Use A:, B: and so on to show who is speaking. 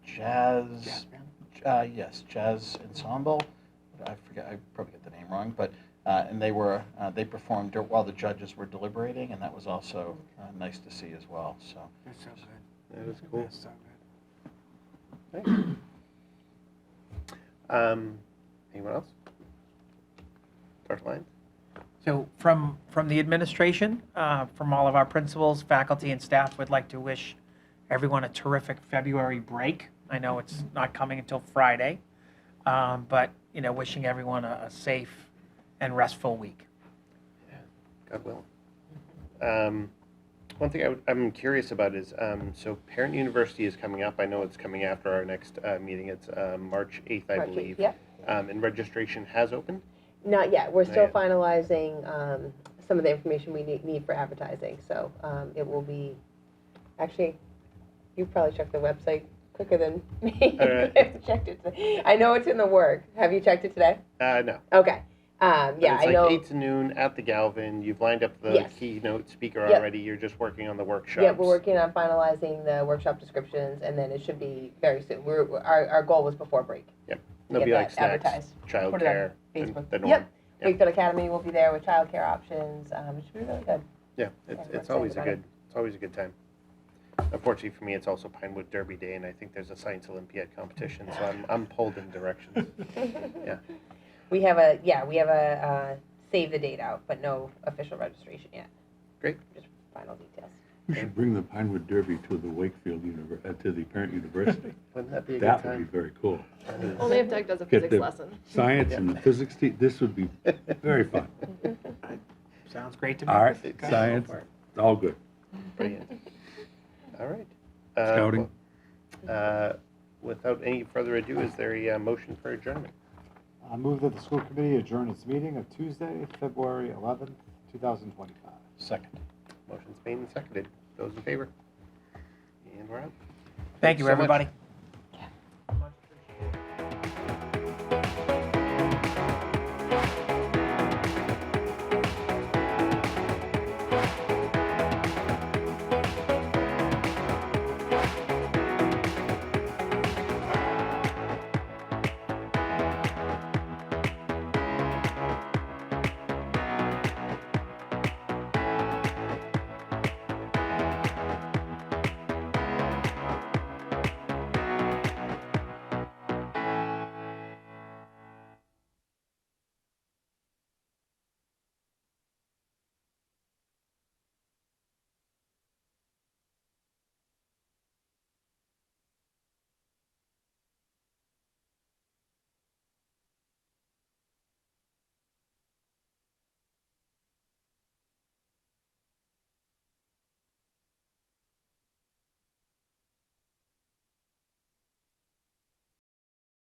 A: jazz,
B: Jazz band?
A: uh, yes, jazz ensemble. I forget, I probably get the name wrong, but, uh, and they were, uh, they performed dur- while the judges were deliberating, and that was also uh, nice to see as well, so.
B: That's so good.
C: That is cool.
B: That's so good.
C: Thanks. Um, anyone else? Dr. Lyons?
D: So from, from the administration, uh, from all of our principals, faculty, and staff, would like to wish everyone a terrific February break. I know it's not coming until Friday, um, but, you know, wishing everyone a a safe and restful week.
C: Yeah, God willing. Um, one thing I would, I'm curious about is um, so Parent University is coming up. I know it's coming after our next uh, meeting. It's uh, March 8th, I
E: March eighth,
C: believe.
E: yep.
C: Um, and registration has opened.
E: Not yet. We're
C: Not
E: still
C: yet.
E: finalizing um, some of the information we need- need for advertising. So um, it will be, actually, you probably checked the website quicker than me.
C: All right.
E: I've checked it today. I know it's in the work. Have you checked it today?
C: Uh, no.
E: Okay. Um,
C: But
E: Yeah,
C: it's
E: I
C: like
E: know.
C: 8 to noon at the Galvin. You've lined up the
E: Yes.
C: keynote speaker
E: Yep.
C: already. You're just working on the workshops.
E: Yeah, we're working on finalizing the workshop descriptions, and then it should be very soon. We're, we're- our, our goal was before break.
C: There'll
E: get
C: be like
E: that
C: snacks,
E: advertised. Put it on
C: childcare, the-
E: Facebook.
C: the norm.
E: Yep.
C: Yep.
E: Wakefield Academy will be there with childcare options. Um, It should be really good.
C: Yeah, it's,
E: we're
C: it's
E: excited
C: always a
E: about it.
C: good, it's always a good time. Unfortunately for me, it's also Pinewood Derby Day, and I think there's a science Olympiad competition, so I'm, I'm pulled in directions. Yeah.
E: We have a, yeah, we have a uh, save the date out, but no official registration yet.
C: Great.
E: Just final details.
F: We should bring the Pinewood Derby to the Wakefield Univer, uh, to the parent university.
C: Wouldn't that be a good
F: That would be
C: time?
F: very cool.
G: Only if Doug does a
F: Get
G: physics
F: the-
G: lesson.
F: Science and the physics team, this would be very fun.
D: Sounds great to me.
F: Art,
C: Go
F: science,
C: for it.
F: it's all good.
C: Brilliant. All right. Uh,
F: Scouting.
C: well, uh, Without any further ado, is there a uh, motion for adjournment?
H: I move that the school committee adjourn its meeting of Tuesday, February 11th, 2025.
A: Second.
C: Motion's made and seconded. Those in favor? And we're out.
D: Thank
C: Thanks so
D: you,
C: much.
D: everybody.